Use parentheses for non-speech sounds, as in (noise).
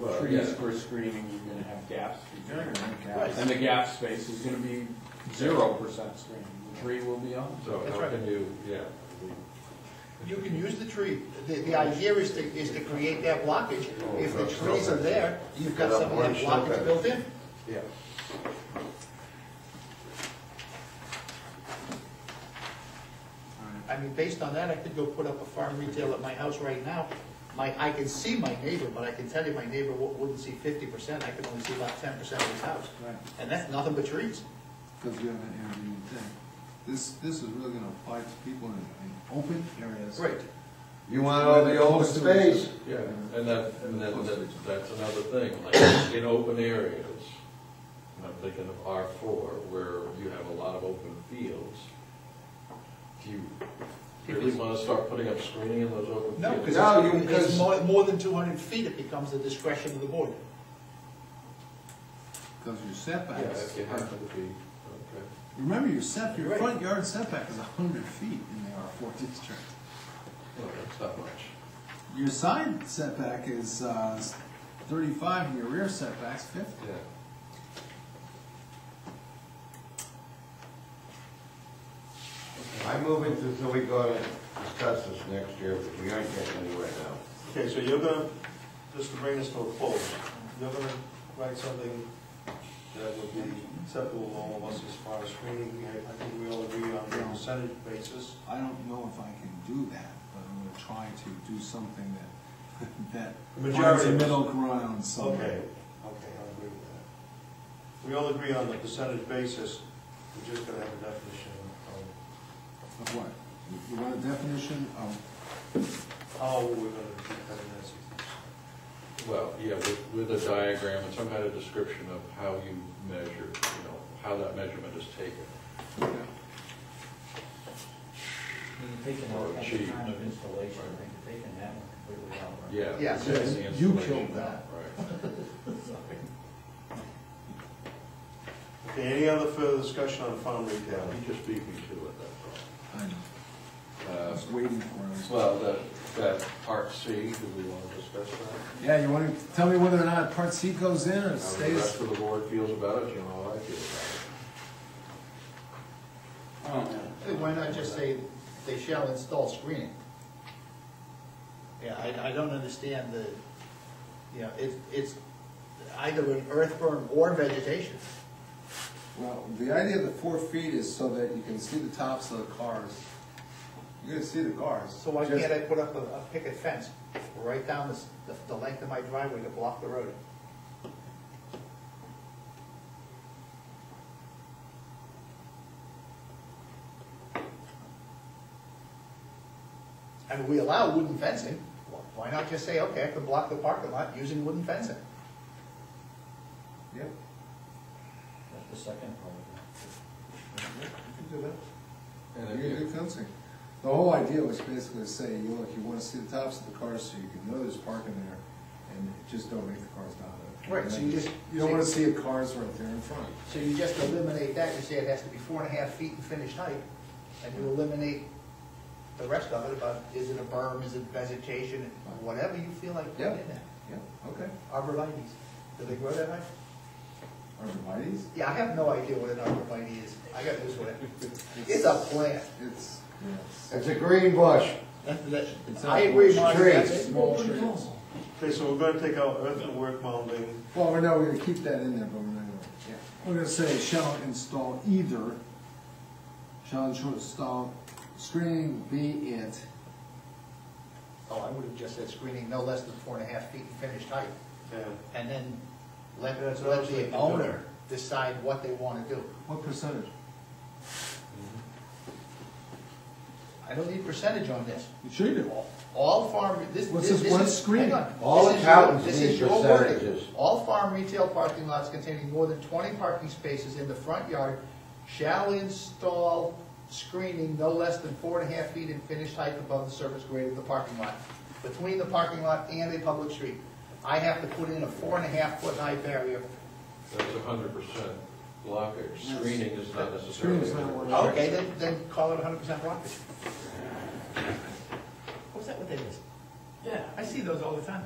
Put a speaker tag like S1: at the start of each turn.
S1: Well,
S2: trees
S1: yeah.
S2: for screening, you're gonna have gaps.
S1: You're gonna have gaps.
S2: And the gap space is gonna be zero percent screening, the tree will be on.
S1: So
S3: That's
S1: how
S3: right.
S1: can you, yeah,
S3: You can use the tree, the, the idea is to, is to create that blockage. If the trees are there, you've got some of that blockage built in.
S1: yeah.
S3: I mean, based on that, I could go put up a farm retail at my house right now. My, I can see my neighbor, but I can tell you my neighbor wo- wouldn't see fifty percent, I could only see about ten percent of his house.
S4: Right.
S3: And that's nothing but trees.
S4: Because you have an Airbnb thing. This, this is really gonna apply to people in, in open areas.
S5: You want all the open space?
S1: Yeah, and that, and that, that- that's another thing, like, in open areas, and I'm thinking of R four, where you have a lot of open fields. Do you really wanna start putting up screening in those open
S3: No,
S1: fields?
S3: because
S5: No, you-
S3: it's, it's
S5: because-
S3: more, more than two hundred feet, it becomes the discretion of the board.
S4: Because your
S1: Yeah,
S4: setbacks,
S1: if you happen to be, okay.
S4: remember your set, your
S3: Right.
S4: front yard setback is a hundred feet in the R four district.
S1: Well, that's not much.
S4: Your side setback is, uh, thirty-five, and your rear setback's fifty.
S1: Yeah.
S5: I move it until we go to discuss this next year, but we aren't getting anywhere now.
S6: Okay, so you're gonna, just to bring this to a close, you're gonna write something that would be acceptable to all of us as far as screening. I I think we all agree on a percentage basis.
S4: I don't know if I can do that, but I'm gonna try to do something that, (laughs)
S6: The
S4: that finds
S6: majority
S4: a
S6: of us.
S4: middle ground
S6: Okay,
S4: somewhere.
S6: okay, I agree with that. We all agree on the percentage basis, we're just gonna have a definition of
S4: Of what? You- You want a definition of
S6: how we're gonna determine that sixty percent.
S1: Well, yeah, with, with a diagram and some kind of description of how you measure, you know, how that measurement is taken.
S7: You're taking
S1: Or
S7: all kinds
S1: achieve.
S7: of time of installation, right, you're taking that one completely out, right?
S1: Yeah.
S3: Yeah,
S1: that's
S3: so
S1: the
S4: you
S1: installation.
S4: killed that.
S1: Right.
S6: Okay, any other further discussion on farm
S1: Yeah,
S6: retail?
S1: you just beat me to it,
S4: I know. I
S1: that's
S4: was
S1: all.
S4: waiting for it.
S1: Uh, Well, that, that part C, do we want to discuss that?
S4: Yeah, you want to tell me whether or not Part C goes in or
S1: How the rest
S4: stays?
S1: of the board feels about it, you know, how I feel about
S3: Why not just say they shall install screening? Yeah, I, I don't understand the, you know, it's, it's either an earthworm or vegetation.
S4: Well, the idea of the four feet is so that you can see the tops of the cars. You're gonna see the cars.
S3: So why
S4: Just-
S3: can't I put up a, a picket fence right down this, the, the length of my driveway to block the road? I mean, we allow wooden fencing, Wh- why not just say, okay, I can block the parking lot using wooden fencing?
S4: Yeah.
S7: That's the second part of that.
S1: it.
S4: You're
S1: And
S4: gonna
S1: if
S4: do
S1: you-
S4: fencing. The whole idea was basically to say, you look, you wanna see the tops of the cars so you can know there's parking there and just don't make the cars dominant.
S3: Right, so you just-
S4: You don't wanna see a cars right there in front.
S3: So you just eliminate that, you say it has to be four and a half feet in finished height, and you eliminate the rest of it about, is it a berm, is it vegetation, whatever you feel like putting in there.
S4: Yeah, okay.
S3: Arborvitae's, do they grow that high?
S4: Arborvitae's?
S3: Yeah, I have no idea what an arborvitae is, I got this one. It's a plant.
S4: It's, yes.
S5: It's a green bush.
S3: That's-
S4: It's
S3: that's-
S4: a
S3: I agree,
S4: tree.
S3: Marty, that's
S5: It's
S3: it.
S4: Small trees.
S6: Okay, so we're gonna take out earthwork mounting,
S4: Well, we're not, we're gonna keep that in there, but we're not gonna, we're gonna say shall install either, shall install screening be it.
S3: Oh, I would have just said screening no less than four and a half feet in finished height,
S6: yeah.
S3: and then let,
S6: That's what I
S3: let
S6: was thinking.
S3: the owner decide what they want to do.
S4: What percentage?
S3: I don't need percentage on this.
S4: You sure you do.
S3: All farm, this,
S4: What's
S3: this
S4: this
S3: this is.
S4: one screen?
S3: hang on.
S5: All
S3: This is your-
S5: accountants
S3: this
S5: need
S3: is your wording.
S5: percentages.
S3: All farm retail parking lots containing more than twenty parking spaces in the front yard shall install screening no less than four and a half feet in finished height above the surface grade of the parking lot, between the parking lot and a public street. I have to put in a four and a half foot high barrier.
S1: That's a hundred percent blockage, screening is not necessarily.
S4: Screening is not one.
S3: Okay, then, then call it hundred percent blockage. Was that what that is? Yeah. I see those all the time.